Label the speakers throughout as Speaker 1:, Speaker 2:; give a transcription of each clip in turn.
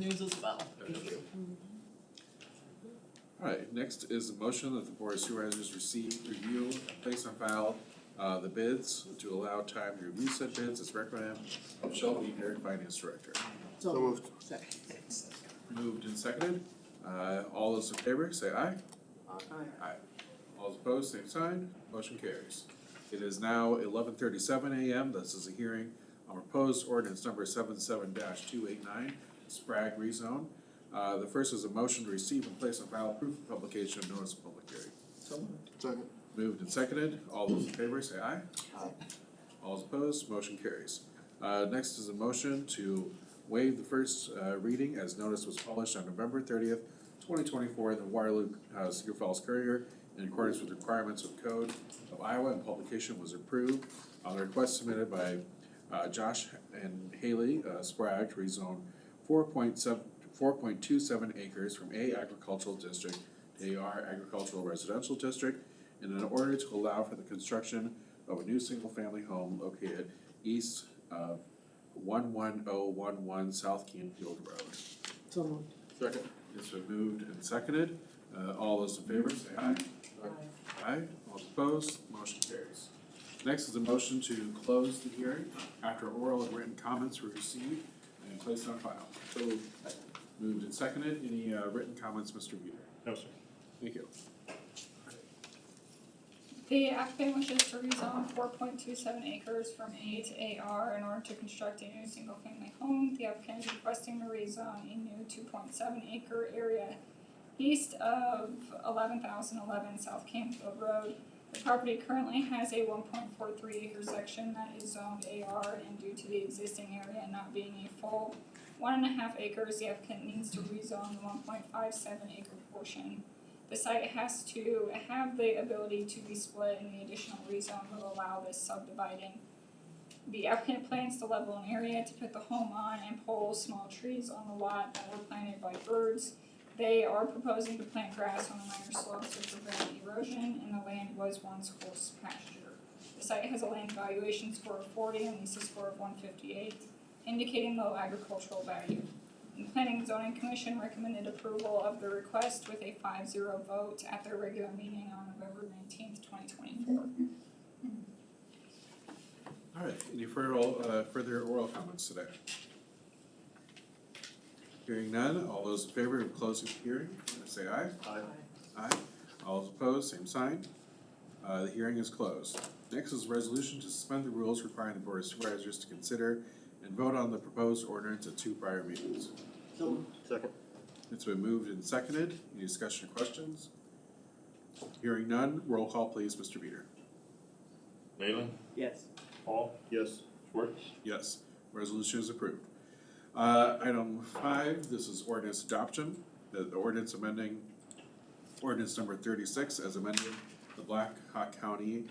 Speaker 1: news as well. Thank you.
Speaker 2: Alright, next is a motion that the board of supervisors receive, review, and place on file, uh, the bids to allow time to review said bids as recommended. by Michelle Eater, Finance Director.
Speaker 1: So moved. Second.
Speaker 2: Moved and seconded, uh, all those in favor, say aye. Aye. All those opposed, same sign, motion carries. It is now eleven thirty-seven AM, this is a hearing on proposed ordinance number 77 two eight nine, Sprague rezone. Uh, the first is a motion to receive and place on file proof of publication of notice of public hearing.
Speaker 1: So moved.
Speaker 3: Second.
Speaker 2: Moved and seconded, all those in favor say aye.
Speaker 1: Aye.
Speaker 2: All those opposed, motion carries. Uh, next is a motion to waive the first, uh, reading as notice was published on November thirtieth, twenty twenty-four in the Waterloo, uh, Cedar Falls Courier in accordance with requirements of code of Iowa and publication was approved on the request submitted by, uh, Josh and Haley, uh, Sprague to rezone four point seven, four point two seven acres from A agricultural district to AR agricultural residential district and in order to allow for the construction of a new single-family home located east of one one oh one one South Canfield Road.
Speaker 1: So moved.
Speaker 2: Second. It's been moved and seconded. Uh, all those in favor, say aye. Aye, all opposed, motion carries. Next is a motion to close the hearing after oral and written comments were received and placed on file. So moved. Moved and seconded. Any, uh, written comments, Mr. Weeder?
Speaker 4: No, sir.
Speaker 2: Thank you.
Speaker 5: The applicant wishes to rezone four point two seven acres from A to AR in order to construct a new single-family home. The applicant is requesting to rezone a new two point seven acre area east of eleven thousand eleven South Campfield Road. The property currently has a one point four three acre section that is zoned AR and due to the existing area not being a full one and a half acres, the applicant needs to rezone the one point five seven acre portion the site has to have the ability to be split and the additional rezone will allow this subdividing. The applicant plans to level an area to put the home on and pull small trees on the lot that were planted by birds. They are proposing to plant grass on the minor slopes to prevent erosion and the land was once horse pasture. The site has a land valuation score of forty and lease a score of one fifty-eight, indicating low agricultural value. The Planning and Zoning Commission recommended approval of the request with a five zero vote at their regular meeting on November nineteenth, twenty twenty-four.
Speaker 2: All right, any further, uh, further oral comments today? Hearing none, all those in favor of closing the hearing, say aye.
Speaker 1: Aye.
Speaker 2: Aye. All those opposed, same sign. Uh, the hearing is closed. Next is a resolution to suspend the rules requiring the Board of Supervisors to consider and vote on the proposed ordinance at two prior meetings.
Speaker 1: So moved.
Speaker 3: Second.
Speaker 2: It's been moved and seconded. Any discussion or questions? Hearing none, roll call please, Mr. Beater.
Speaker 4: Leyland,
Speaker 1: Yes.
Speaker 4: Paul,
Speaker 3: Yes.
Speaker 4: Schwartz,
Speaker 2: Yes, resolution is approved. Uh, item five, this is ordinance adoption, the, the ordinance amending ordinance number thirty-six as amended, the Black Hawk County,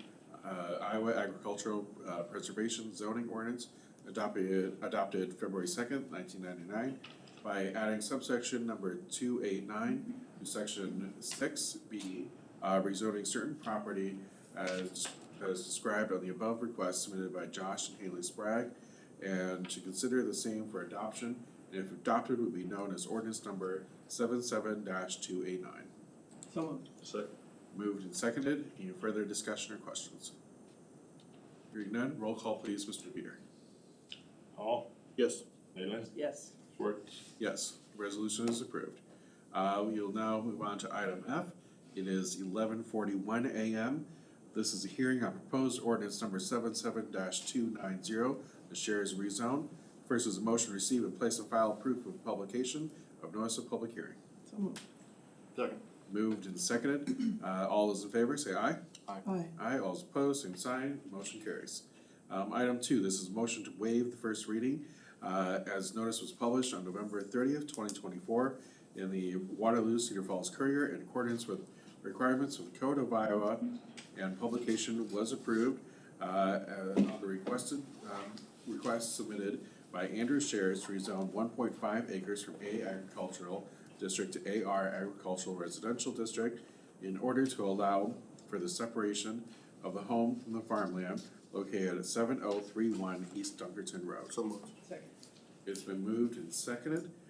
Speaker 2: uh, Iowa Agricultural uh, Preservation Zoning Ordinance adopted, adopted February second, nineteen ninety-nine by adding subsection number two eight nine to section six B, uh, rezoning certain property as, as described on the above request submitted by Josh and Haley Sprague, and to consider the same for adoption, and if adopted, would be known as ordinance number seven two eight nine.
Speaker 1: So moved.
Speaker 3: Second.
Speaker 2: Moved and seconded, any further discussion or questions? Hearing none, roll call please, Mr. Peter.
Speaker 4: Paul,
Speaker 3: Yes.
Speaker 4: Leyland,
Speaker 1: Yes.
Speaker 4: Schwartz,
Speaker 2: Yes, resolution is approved. Uh, we'll now move on to item F. It is eleven forty-one AM. This is a hearing on proposed ordinance number 77 two nine zero, the shares rezone. First is a motion to receive and place and file proof of publication of notice of public hearing.
Speaker 1: So moved.
Speaker 3: Second.
Speaker 2: Moved and seconded. Uh, all those in favor, say aye.
Speaker 1: Aye.
Speaker 2: Aye, all is opposed, same sign, motion carries. Um, item two, this is motion to waive the first reading, uh, as notice was published on November thirtieth, twenty twenty-four in the Waterloo Cedar Falls Courier in accordance with requirements of the Code of Iowa, and publication was approved, uh, uh, on the requested, um, request submitted by Andrew Shares to rezone one point five acres from A agricultural district to AR agricultural residential district in order to allow for the separation of the home from the farmland located at seven oh three one East Dunkerton Road.
Speaker 3: So moved.
Speaker 1: Second.
Speaker 2: It's been moved and seconded. Uh,